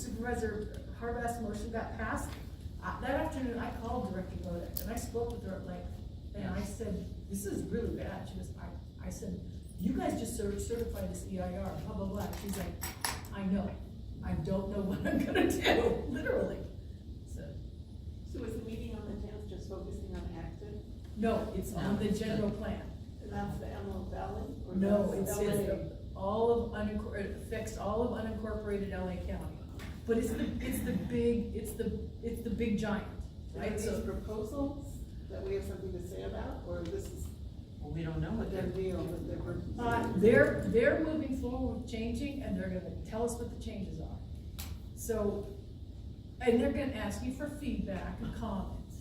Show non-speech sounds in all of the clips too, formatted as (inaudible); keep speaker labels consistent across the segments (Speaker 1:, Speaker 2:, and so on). Speaker 1: Supervisor Harbach's motion got passed, uh, that afternoon, I called Director Bodek, and I spoke with her at length, and I said, this is really bad, she goes, I, I said, you guys just cer- certified this EIR, blah, blah, blah, she's like, I know, I don't know (laughs) what I'm gonna do, literally, so,
Speaker 2: So is the meeting on the tenth just focusing on active?
Speaker 1: no, it's on the general plan.
Speaker 2: And that's the Emerald Valley? or
Speaker 1: No,
Speaker 2: that's
Speaker 1: it's,
Speaker 2: LA?
Speaker 1: it's all of unincor, it affects all of unincorporated LA County. But it's the, it's the big, it's the, it's the big giant,
Speaker 2: And Are
Speaker 1: right?
Speaker 2: these
Speaker 1: So,
Speaker 2: proposals that we have something to say about, or this is
Speaker 3: Well, we don't know
Speaker 2: a
Speaker 3: what they're,
Speaker 2: done deal that they were?
Speaker 1: uh, they're, they're moving forward with changing and they're gonna tell us what the changes are. So, and they're gonna ask you for feedback and comments.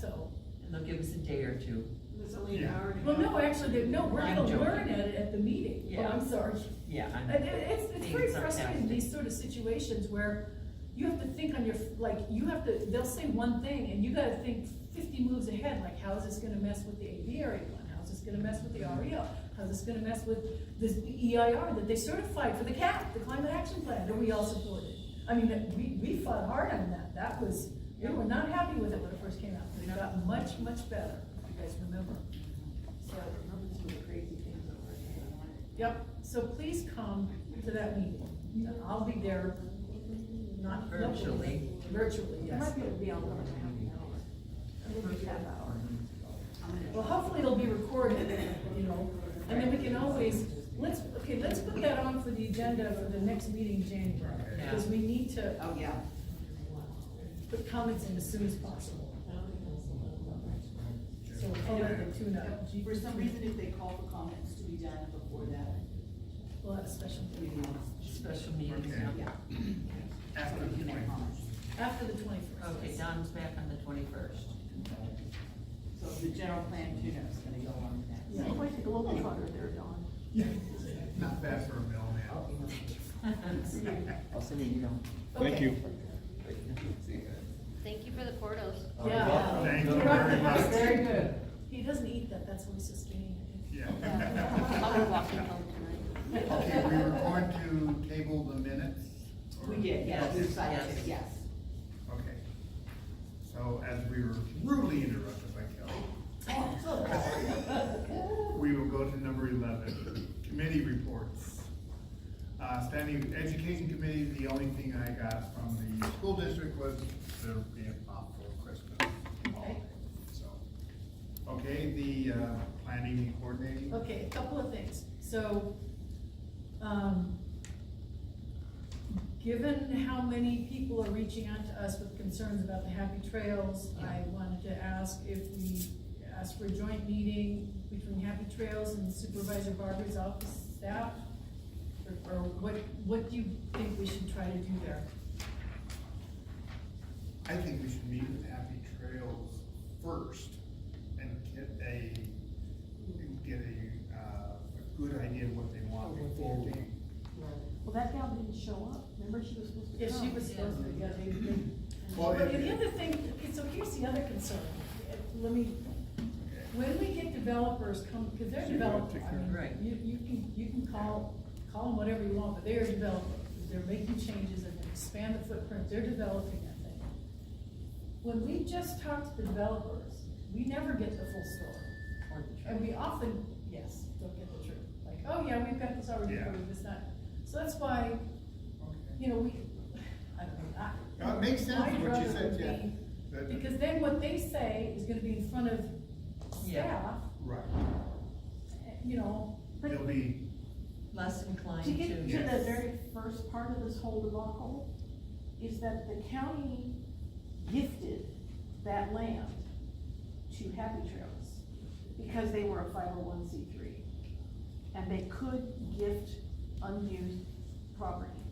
Speaker 1: So,
Speaker 3: and they'll give us a day or two.
Speaker 2: It's only an hour and a half.
Speaker 1: well, no, actually, they- no, we're gonna
Speaker 3: I'm joking.
Speaker 1: learn at it at the meeting. Oh,
Speaker 3: Yeah.
Speaker 1: I'm sorry.
Speaker 3: Yeah, I'm.
Speaker 1: And it- it's, it's
Speaker 3: being
Speaker 1: very frustrating,
Speaker 3: sarcastic.
Speaker 1: these sort of situations where you have to think on your, like, you have to, they'll say one thing and you gotta think fifty moves ahead, like, how is this gonna mess with the aviary plan? How's this gonna mess with the E REO?
Speaker 3: Mm-hmm.
Speaker 1: How's this gonna mess with this EIR that they certified for the CAP, the climate action plan, that we all supported? I mean, that- we, we fought hard on that, that was, we were not happy with it when it first came out, but it got much, much better, if you guys remember.
Speaker 2: So I remember some of the crazy things that were happening.
Speaker 1: Yep, so please come to that meeting. I'll be there, not
Speaker 3: Virtually.
Speaker 1: Virtually,
Speaker 2: It
Speaker 1: yes.
Speaker 2: might be able to be on over a half an hour. Maybe half hour.
Speaker 1: Well, hopefully it'll be recorded, you know, and then we can always, let's, okay, let's put that on for the agenda for the next meeting in January. Because we need to
Speaker 2: Oh, yeah.
Speaker 1: put comments in as soon as possible. So we'll call it the tune-up.
Speaker 4: For some reason, if they call for comments to be done before that,
Speaker 1: We'll have a special
Speaker 4: we
Speaker 1: meeting
Speaker 4: can,
Speaker 3: Special meetings,
Speaker 5: Okay.
Speaker 3: yeah.
Speaker 4: yeah.
Speaker 5: After
Speaker 4: So
Speaker 5: the
Speaker 4: we can have
Speaker 5: point.
Speaker 4: comments.
Speaker 1: after the twenty-first.
Speaker 3: Okay, Don's back on the twenty-first. (laughs)
Speaker 4: So the general plan tune-up's gonna go on with that.
Speaker 1: Yeah.
Speaker 2: Quite the global trotter there, Dawn.
Speaker 5: Not bad for a mailman.
Speaker 3: I'll send an email.
Speaker 1: Thank you.
Speaker 6: Thank you for the portos. (laughs)
Speaker 1: Yeah.
Speaker 5: Thank you very much.
Speaker 1: Very good. He doesn't eat that, that's why he's so skinny.
Speaker 6: I'll be
Speaker 5: Yeah.
Speaker 6: walking home tonight.
Speaker 5: Okay, we were going to table the minutes? or-
Speaker 4: We did, yes, we
Speaker 5: Okay.
Speaker 4: decided,
Speaker 3: Yes.
Speaker 4: yes.
Speaker 5: Okay. So as we were rudely interrupted by Kelly, we will go to number eleven, committee reports. Uh, standing education committee, the only thing I got from the school district was there will be a pop for Christmas. holiday, So, okay, the, uh, planning and coordinating.
Speaker 1: Okay, a couple of things. So, um, given how many people are reaching out to us with concerns about the Happy Trails, I wanted to ask if we ask for a joint meeting between Happy Trails and Supervisor Barber's office staff? Or- Or what, what do you think we should try to do there?
Speaker 5: I think we should meet with Happy Trails first and get a, get a, uh, a good idea of what they want before we.
Speaker 2: Well, that gal didn't show up. Remember, she was supposed to come.
Speaker 1: Yeah, she was supposed to, yeah, they, they.
Speaker 5: Well,
Speaker 1: But
Speaker 5: it-
Speaker 1: the other thing, okay, so here's the other concern, Uh, let me, when we get developers come, cause they're
Speaker 5: So you wanna
Speaker 1: developers,
Speaker 5: take
Speaker 1: I
Speaker 5: care of-
Speaker 1: mean,
Speaker 3: Right.
Speaker 1: you, you can, you can call, call them whatever you want, but they're developers. They're making changes and they expand the footprint, they're developing that thing. When we just talk to the developers, we never get the full story. And we often, yes, don't get the truth, like, oh yeah, we've got this already,
Speaker 5: Yeah.
Speaker 1: approved, it's not, so that's why
Speaker 5: Okay.
Speaker 1: you know, we, I don't know, I.
Speaker 5: No, it makes sense
Speaker 1: I'd
Speaker 5: what you
Speaker 1: rather
Speaker 5: said, yeah.
Speaker 1: be-
Speaker 5: That-
Speaker 1: Because then what they say is gonna be in front of staff,
Speaker 3: Yeah.
Speaker 5: Right,
Speaker 1: eh, you know,
Speaker 5: they'll be,
Speaker 3: Less inclined
Speaker 2: To
Speaker 3: to.
Speaker 2: get to
Speaker 5: Yes.
Speaker 2: the very first part of this whole debacle, is that the county gifted that land to Happy Trails because they were a five oh one C three. And they could gift unused property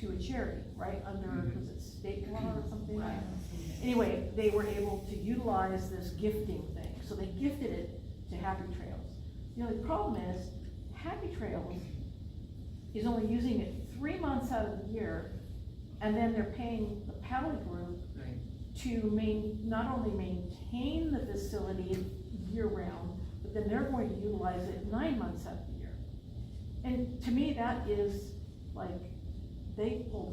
Speaker 2: to a charity, right, under,
Speaker 5: Mhm.
Speaker 2: was it state law or something like that? Anyway, they were able to utilize this gifting thing, so they gifted it to Happy Trails. The only problem is, Happy Trails is only using it three months out of the year, and then they're paying the paddle group
Speaker 3: Right.
Speaker 2: to main, not only maintain the facility year-round, but then they're going to utilize it nine months out of the year. And to me, that is like, they pulled